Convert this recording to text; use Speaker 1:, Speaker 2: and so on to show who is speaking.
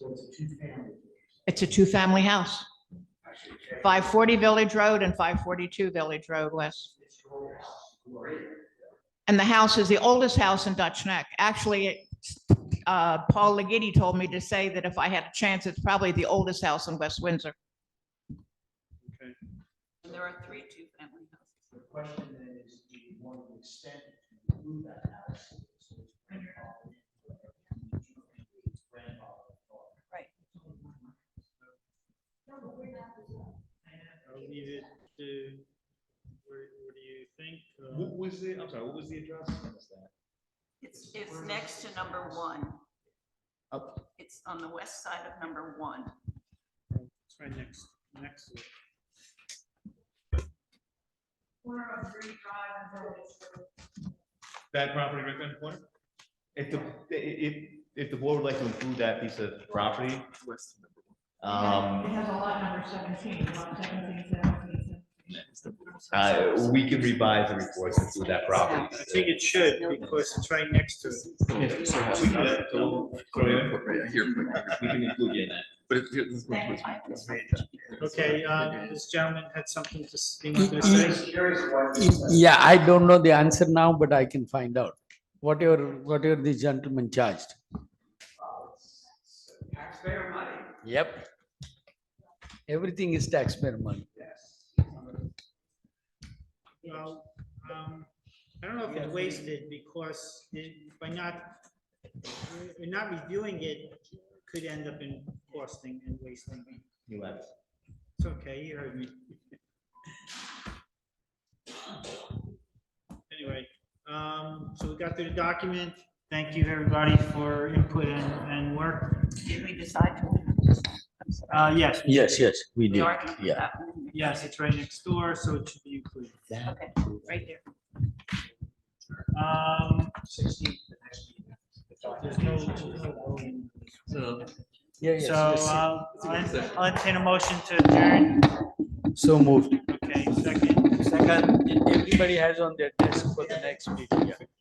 Speaker 1: So it's a two-family.
Speaker 2: It's a two-family house,
Speaker 1: Actually, it's a-
Speaker 2: 540 Village Road and 542 Village Road West.
Speaker 1: It's your old house. Great.
Speaker 2: And the house is the oldest house in Dutch Neck. Actually, it's, uh, Paul Legitti told me to say that if I had a chance, it's probably the oldest house in West Windsor.
Speaker 3: And there are three two-family houses.
Speaker 1: The question then is, do you want to extend it to move that house? so it's grandfathered in? It's grandfathered in.
Speaker 3: Right.
Speaker 4: I'll leave it to, what, what do you think? Uh,
Speaker 5: What was the, I'm sorry, what was the address? What was that?
Speaker 3: It's, it's next to number one.
Speaker 5: Up.
Speaker 3: It's on the west side of number one.
Speaker 4: It's right next, next to it.
Speaker 5: That property right there in the corner? If the, i- i- if, if the board would like to include that piece of property. Um,
Speaker 2: has a lot number 17, lot 17,
Speaker 5: uh, we can revise the report to include that property.
Speaker 4: I think it should, because it's right next to it.
Speaker 5: Yeah, we can, uh, so- so we-
Speaker 6: Yeah, here, quick, quick,
Speaker 5: We can include you in that.
Speaker 6: but it- here, this one, please.
Speaker 4: Okay, uh, this gentleman had something to, s- he
Speaker 7: Y-
Speaker 4: wanted to
Speaker 1: I'm
Speaker 4: say.
Speaker 1: just curious why you said-
Speaker 7: Yeah, I don't know the answer now, but I can find out. Whatever, whatever the gentleman charged.
Speaker 1: Taxpayer money,
Speaker 7: Yep. Everything is taxpayer money.
Speaker 1: yes.
Speaker 4: Well, um, I don't know if it's wasted because it- by not, by not reviewing it could end up in costing and wasting.
Speaker 5: You left.
Speaker 4: It's okay, you heard me. Anyway, um, so we got through the document. Thank you, everybody, for input and, and work.
Speaker 3: Did we decide to? I'm sorry.
Speaker 4: Uh, yes,
Speaker 7: Yes, yes, we
Speaker 3: We
Speaker 7: did.
Speaker 3: are gonna put
Speaker 7: yeah.
Speaker 3: that one in there.
Speaker 4: yes, it's right next door, so it should be included.
Speaker 3: Okay, right there.
Speaker 4: Um, there's no, no voting.
Speaker 7: Yeah, yes,
Speaker 4: So,
Speaker 7: yes.
Speaker 4: uh, I'll ent- I'll entertain a motion to adjourn.
Speaker 7: So moved.
Speaker 4: Okay, second.
Speaker 7: Second, everybody has on their desk for the next meeting. yeah.